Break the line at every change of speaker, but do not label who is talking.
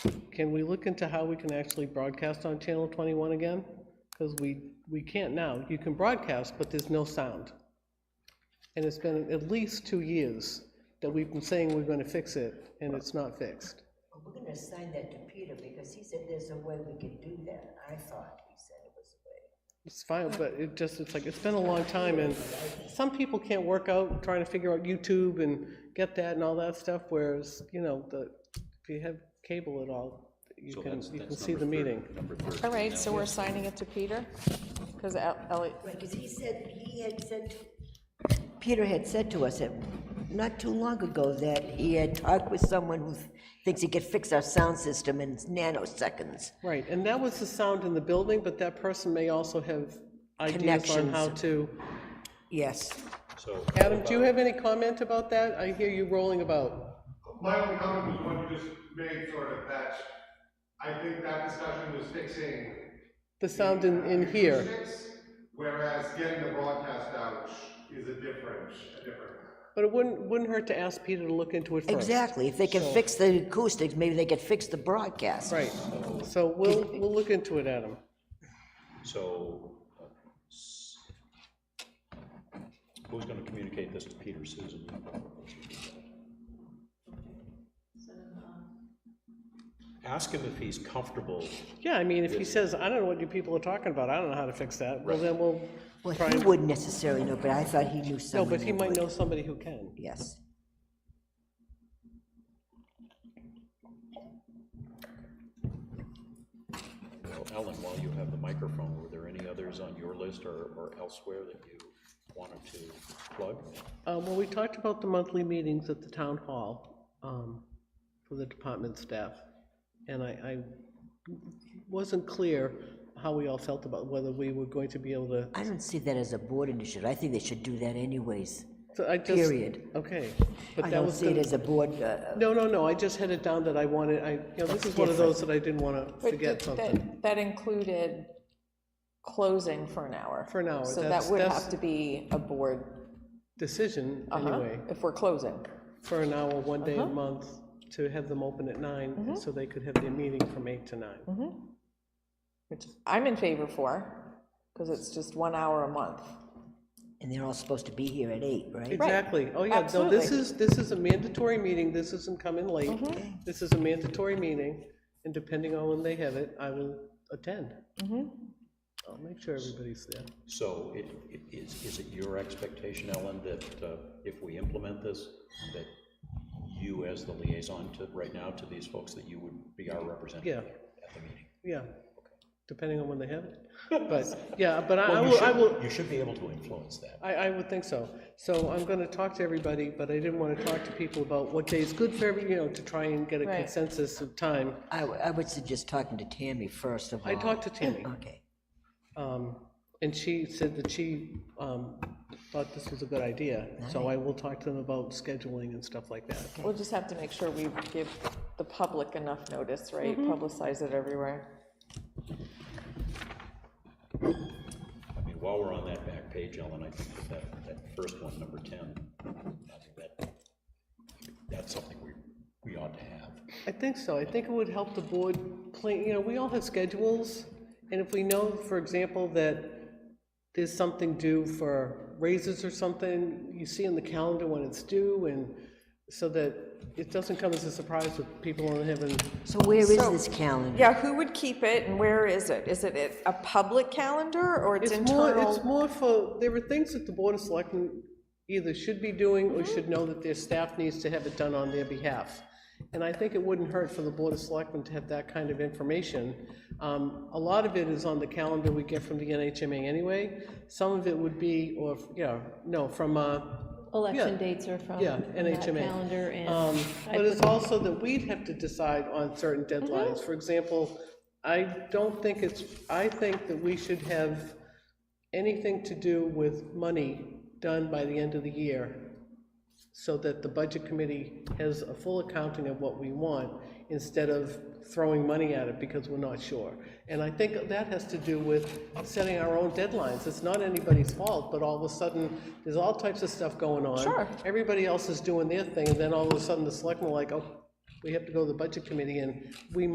can we look into how we can actually broadcast on Channel 21 again? Because we, we can't now. You can broadcast, but there's no sound. And it's been at least two years that we've been saying we're going to fix it, and it's not fixed.
We're gonna assign that to Peter, because he said there's a way we can do that, I thought he said it was a way.
It's fine, but it just, it's like, it's been a long time, and some people can't work out trying to figure out YouTube and get that and all that stuff, whereas, you know, the, if you have cable at all, you
So
can,
that's-
you can
that's
see the
number thir-
meeting.
Number 13.
All right, so we're assigning it to Peter? Because Ellie,
Right, because he said, he had said, to- Peter had said to us that not too long ago that he had talked with someone who thinks he could fix our sound system in nanoseconds.
Right, and that was the sound in the building, but that person may also have ideas on how
Connections.
to.
Yes,
So,
Adam, do you have any comment about that? I hear you rolling about.
My only comment was one you just made, sort of, that I think that discussion was fixing
The sound in, in here.
acoustics, whereas getting the broadcast out is a different, a different.
But it wouldn't, wouldn't hurt to ask Peter to look into it first.
exactly, if they can fix the acoustics, maybe they could fix the broadcast.
Right, so we'll, we'll look into it, Adam.
so, uh, s- who's going to communicate this to Peter, Susan? Ask him if he's comfortable.
Yeah, I mean, if he says, I don't know what you people are talking about, I don't know how to fix that, well, then we'll
Well,
try
he
and,
wouldn't necessarily know, but I thought he knew
no,
someone.
but he
who
might
would.
know somebody who can.
Yes.
Well, Ellen, while you have the microphone, were there any others on your list or or elsewhere that you wanted to plug?
Uh, Well, we talked about the monthly meetings at the town hall um, for the department staff, and I I wasn't clear how we all felt about whether we were going to be able to,
I don't see that as a board initiative. I think they should do that anyways.
so I just.
Period.
Okay.
I
but that
don't
was
see it
gonna-
as a board, uh,
No, no, no, I just had it down that I wanted, I, you know, this is one of those that I didn't want to forget something.
that included closing for an hour.
For an hour,
So that
that's-
would
that's-
have to be a board,
Decision,
Uh-huh.
huh,
anyway,
if we're closing.
for an hour, one day a month, to have them open at
Mm-hmm.
nine, so they could have their meeting from eight to nine.
which I'm in favor for, because it's just one hour a month.
and they're all supposed to be here at eight, right?
Exactly, oh yeah, no, this
Absolutely. Mm-hmm.
is, this is a mandatory meeting, this isn't coming late, this is a mandatory meeting, and depending on when they have it, I will attend.
Mm-hmm.
I'll make sure everybody's there.
So it- it- is is it your expectation, Ellen, that uh, if we implement this, that you as the liaison to, right now, to these folks, that you would be our representative at the meeting?
Yeah, depending on when they have it, but, yeah, but I I
Well, you
will, I
should-
will,
You should be able to influence that.
I, I would think so. So I'm gonna talk to everybody, but I didn't wanna talk to people about what day is good for every, you know, to try and get a
Right.
consensus of time.
I, w- I would suggest talking to Tammy first of all.
I talked to Tammy.
Okay.
Um, And she said that she um, thought this was a good idea, so I will talk to them about scheduling and stuff like that.
We'll just have to make sure we give the public enough notice, right? Publicize it everywhere.
I mean, while we're on that back page, Ellen, I think that that, that first one, number 10, I think that, that's something we, we ought to have.
I think so, I think it would help the board plan, you know, we all have schedules, and if we know, for example, that there's something due for raises or something, you see in the calendar when it's due, and so that it doesn't come as a surprise with people on having,
So where is
So-
this calendar?
Yeah, who would keep it and where is it? Is it a- a public calendar or it's
it's more,
internal?
it's more for, there are things that the board of selectmen either should be doing or should know that their staff needs to have it done on their behalf. And I think it wouldn't hurt for the board of selectmen to have that kind of information. Um, A lot of it is on the calendar we get from the NHMA anyway. Some of it would be, or, yeah, no, from, uh,
Election
Yeah.
dates are from
Yeah,
that
NHMA.
calendar,
Um,
and
But it's also that we'd have to decide on certain
Mm-hmm.
deadlines. For example, I don't think it's, I think that we should have anything to do with money done by the end of the year, so that the budget committee has a full accounting of what we want, instead of throwing money at it because we're not sure. And I think that has to do with setting our own deadlines. It's not anybody's fault, but all of a sudden, there's all types of stuff going on.
Sure.
Everybody else is doing their thing, and then all of a sudden, the selectmen are like, oh, we have to go to the budget committee, and we